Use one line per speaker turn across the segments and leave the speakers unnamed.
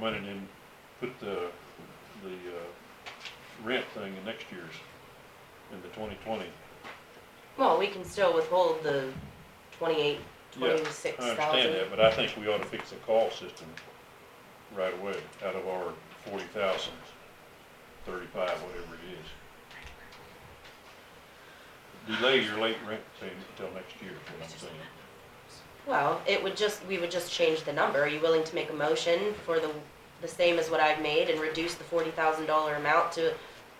money and then put the, the, uh, rent thing in next year's, in the twenty twenty.
Well, we can still withhold the twenty-eight,
Yeah, I
twenty-six
I understand
thousand.
that, but I think we ought to fix the call system right away, out of our forty thousand, thirty-five, whatever it is. Delay your late rent payment until next year, is what I'm saying.
Well, it would just, we would just change the number. Are you willing to make a motion for the, the same as what I've made and reduce the forty thousand dollar amount to,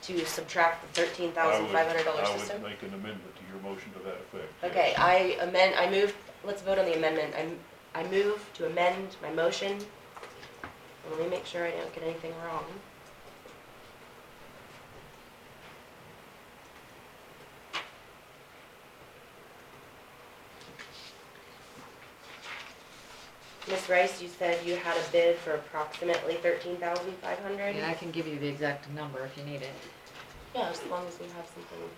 to subtract the thirteen
I
thousand
would-
five hundred dollar system?
I would make an amendment to your motion to that effect. yes.
Okay, I amend, I move, let's vote on the amendment. I'm, I move to amend my motion. Let me make sure I don't get anything wrong. Ms. Rice, you said you had a bid for approximately thirteen thousand five hundred?
Yeah, I can give you the exact number if you need it.
Yeah, as long as we have something.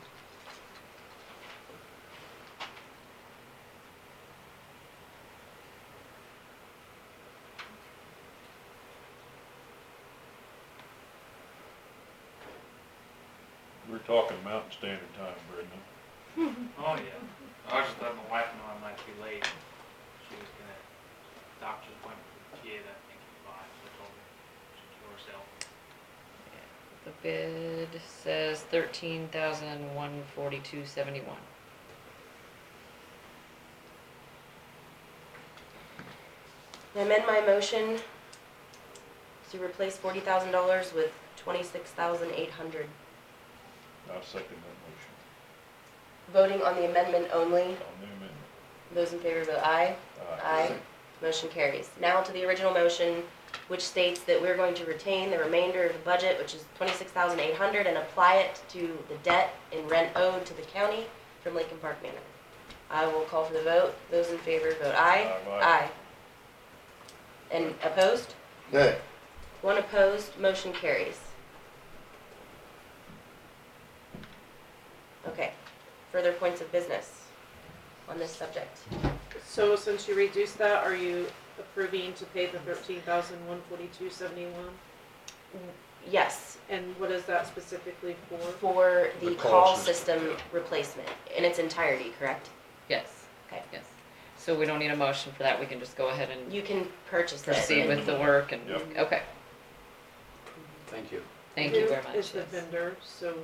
We're talking Mountain Standard Time, Brendan.
Oh, yeah. I just let my wife know I might be late. She was gonna, doctor's appointment for the kid, I think, at five, so I told her to kill herself.
The bid says thirteen thousand one forty-two seventy-one.
I amend my motion to replace forty thousand dollars with twenty-six thousand eight hundred.
I second that
Voting on the amendment only,
motion on the amendment.
those in favor vote aye. Aye. Motion carries. Now to the original motion, which states that we're going to retain the remainder of the budget, which is twenty-six thousand eight hundred, and apply it to the debt and rent owed to the county from Lincoln Park Manor. I will call for the vote. Those in favor vote aye.
Aye, aye.
Aye. And opposed?
Nay.
One opposed, motion carries. Okay, further points of business on this subject.
So since you reduced that, are you approving to pay the thirteen thousand one forty-two seventy-one?
Yes,
And what is that specifically for?
for the
The call
call
system.
system replacement in its entirety, correct?
Yes.
Okay.
Yes. So we don't need a motion for that, we can just go ahead and
You can purchase it.
proceed with the work and,
Yep.
okay,
Thank you.
thank you
Who
very much.
Is the
yes.
vendor, so. you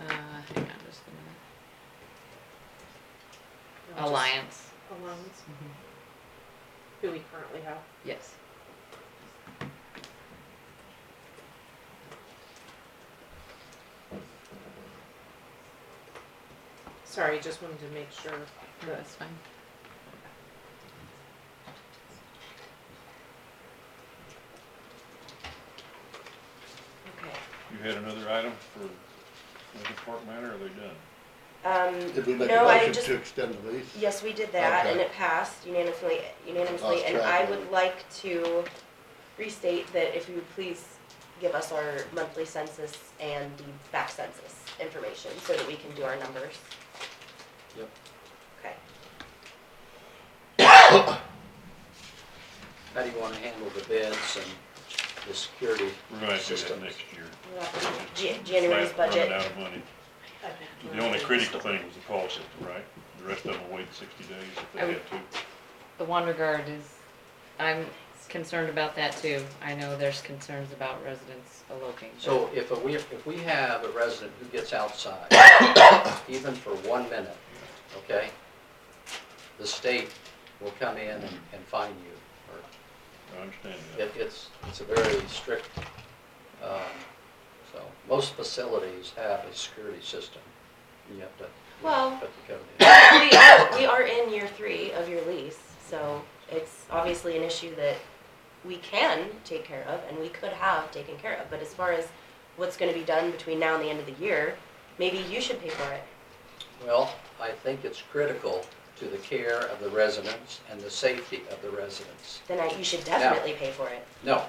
Uh, hang on just a minute.
know, just
Alliance,
Alliance,
Mhm.
who we currently have.
yes.
Sorry, just wanted to make sure that
That's fine.
Okay.
Uh, You had another item for Lincoln Park Manor, or are they done?
Um,
Did we make a
No, I
motion
just-
to extend the lease?
yes, we did that and
Okay.
it passed unanimously, unanimously,
Lost
and
track
I
of
would
it.
like to restate that if you would please give us our monthly census and the back census information so that we can do our numbers.
Yep.
Okay.
How do you wanna handle the bids and the security?
We're gonna have to do that
Systems.
next year.
We'll have to do Ja- January's budget.
Running out of money. The only critical thing was the call system, right? The rest of them will wait sixty days if they
I would-
had to.
The one regard is, I'm concerned about that too. I know there's concerns about residents eloping. but-
So if a- we, if we have a resident who gets outside, even for one minute, okay? The state will come in and, and fine you. or-
I understand that.
It, it's, it's a very strict, um, so, most facilities have a security system. You have to. you
Well-
have to put the code in.
we, are, we are in year three of your lease, so it's obviously an issue that we can take care of and we could have taken care of. But as far as what's going to be done between now and the end of the year, maybe you should pay for it.
Well, I think it's critical to the care of the residents and the safety of the residents.
Then I, you should definitely pay for it.
No,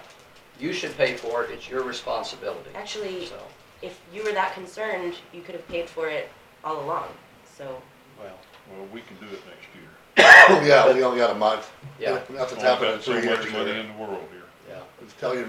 you should pay for it, it's your responsibility,
Actually,
so,
if you were that concerned, you could have paid for it all along. So
well,
Well, we can do it next year.
Oh, Yeah, we only got a month.
yeah,
Nothing's
All
happened in
Oh, about so
three
much
years
money
here.
in the world here.
yeah.
Just Tell your